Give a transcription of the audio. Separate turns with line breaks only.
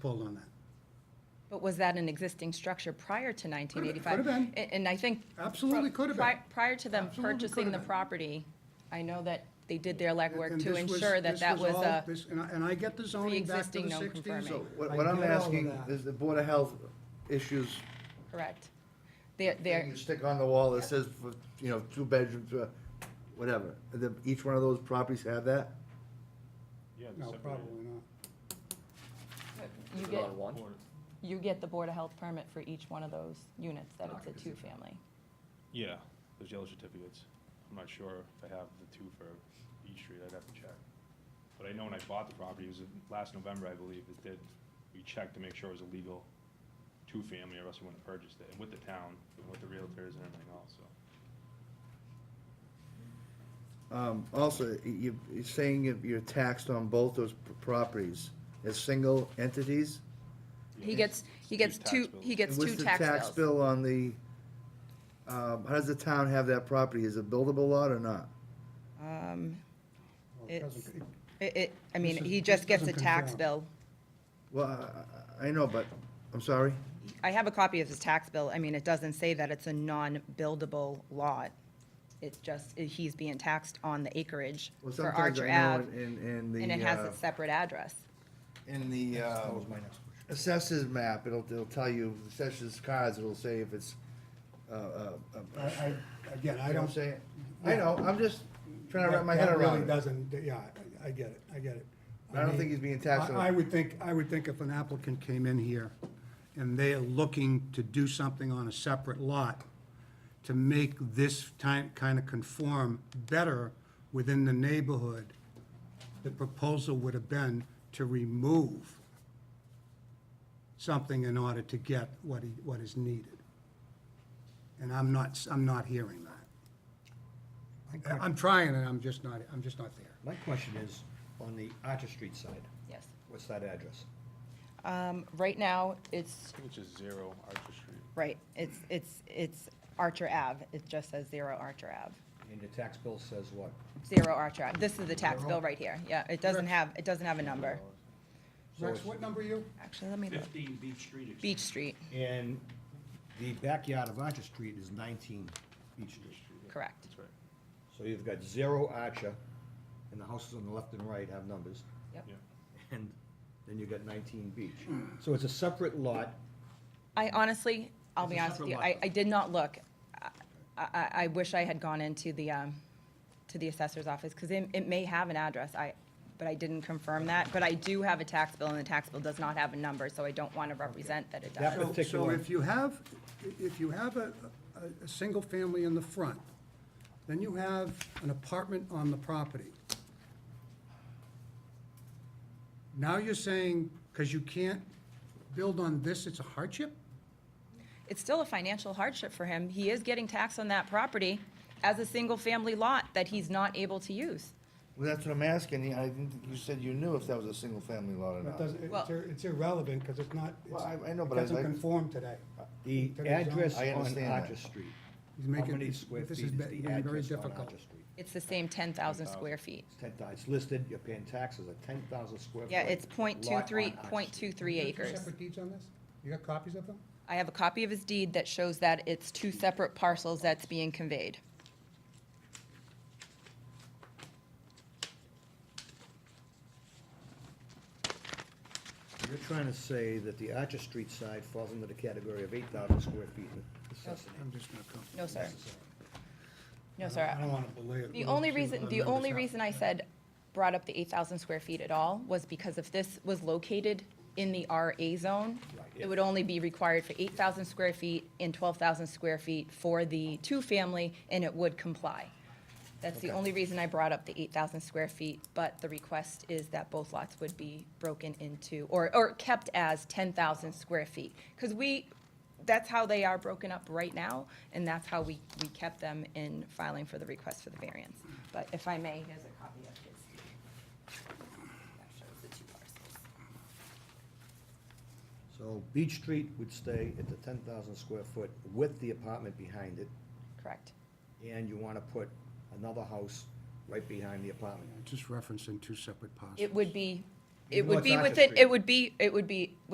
pulled on that.
But was that an existing structure prior to 1985?
Could've been.
A- And I think.
Absolutely
pro-
could've
pri-
been.
Prior to them
Absolutely
purchasing
could've
the
been.
property, I know that they did their legwork
And
to
this was-
ensure that
this
that was
all-
a,
this- And I, and I get the zoning back to
pre-existing
the sixties.
non-conforming.
So what, what I'm asking is the Board of Health issues,
correct. They're,
thing
they're,
you stick on the wall that says, for, you know, two bedrooms, uh, whatever. The- Each one of those properties have that?
Yeah, the
No,
separated
probably not.
you get, you get the Board of Health permit for each one of those units, that it's a two-family.
Yeah, those yellow certificates. I'm not sure if I have the two for each Street, I'd have to check. But I know when I bought the property, it was in- last November, I believe, it did, we checked to make sure it was a legal two-family, or else we wouldn't have purchased it, and with the town, and with the realtors and everything else, so.
Um, also, y- you, you're saying you- you're taxed on both those p- properties as single entities?
He gets, he
Two
gets
tax
two,
bills.
he gets
And
two tax
What's the tax
bills.
bill on the, um, how does the town have that property? Is it buildable lot or not?
Well, it
It's-
doesn't-
It, it, I mean,
This is-
he
this
just gets a
doesn't
tax
conform.
bill.
Well, I- I, I know, but, I'm sorry?
I have a copy of his tax bill. I mean, it doesn't say that it's a non-buildable lot. It's just, it- he's being taxed on the acreage
Well,
for
sometimes
Archer
I know
Ave,
In, in the.
and it has
uh,
a separate address.
In the, uh, assessors map, it'll, it'll tell you, assessors cards, it'll say if it's, uh, uh,
I,
uh,
I, again, I
you know what
don't.
I'm saying? I know, I'm just trying to wrap my
that-
head
that
around
Really
it.
doesn't, yeah, I I get it, I get it.
I don't
mean,
think he's being taxed
I-
on-
I would think, I would think if an applicant came in here and they are looking to do something on a separate lot to make this time, kind of conform better within the neighborhood, the proposal would have been to remove something in order to get what he, what is needed. And I'm not, s- I'm not hearing that. I'm trying and I'm just not, I'm just not there.
My question is, on the Archer Street side,
Yes.
what's that address?
Um, Right now, it's,
I think it's just zero Archer Street.
right, it's, it's, it's Archer Ave. It just says zero Archer Ave.
And the tax bill says what?
Zero Archer Ave. This is the tax bill right here. Yeah, it doesn't have, it doesn't have a number.
Rex, what number are you?
Actually, let me look.
Fifteen Beach Street.
Beach Street,
And the backyard of Archer Street is nineteen Beach Street.
correct.
That's right.
So you've got zero Archer, and the houses on the left and right have numbers,
Yep.
Yeah.
and then you've got nineteen Beach.
Hmm.
So it's a separate lot,
I honestly, I'll
It's
be
a
honest with you,
separate
I,
lot.
I did not look. I- I, I wish I had gone into the, um, to the assessor's office, because it, it may have an address, I, but I didn't confirm that. But I do have a tax bill, and the tax bill does not have a number, so I don't want to represent that it
That
does.
was-
So, so
particular-
if you have, if you have a, a, a single family in the front, then you have an apartment on the property. Now you're saying, because you can't build on this, it's a hardship?
It's still a financial hardship for him, he is getting taxed on that property as a single-family lot that he's not able to use.
Well, that's what I'm asking, I didn't, think you said you knew if that was a single family lot or
It
not.
doesn't,
Well-
it's ir- it's irrelevant, because it's not,
Well,
it's-
I, I know,
it
but I,
doesn't
I,
conform today.
the
To the zone.
address
I
on
understand that.
Archer Street.
He's
How
making-
many square
this
feet
has
is
been-
the
been very
address on
difficult.
Archer Street?
It's the same ten thousand square feet.
It's ten, thou- it's listed, you're paying taxes at ten thousand square foot.
Yeah, it's point two
lot
three,
on Archer
point
Street.
two three
You got two
acres.
Separate deeds on this? You got copies of them?
I have a copy of his deed that shows that it's two separate parcels that's being conveyed.
You're trying to say that the Archer Street side falls under the category of eight thousand square feet of necessity.
I'm just not comfortable.
No, sir. No, sir.
I don't want to belay it.
The only reason, the only reason I said, brought up the eight thousand square feet at all was because if this was located in the RA zone, it would only be required for eight thousand square feet and twelve thousand square feet for the two-family, and it would comply. That's the only reason I brought up the eight thousand square feet, but the request is that both lots would be broken into, or, or kept as ten thousand square feet. Because we, that's how they are broken up right now, and that's how we, we kept them in filing for the request for the variance. But if I may, here's a copy of his. That shows the two parcels.
So Beach Street would stay at the ten thousand square foot with the apartment behind it,
Correct.
and you wanna put another house right behind the apartment.
Just referencing two separate parcels.
It would be,
Even
it
though
would
it's
be
Archer
within,
Street.
it would be, it would be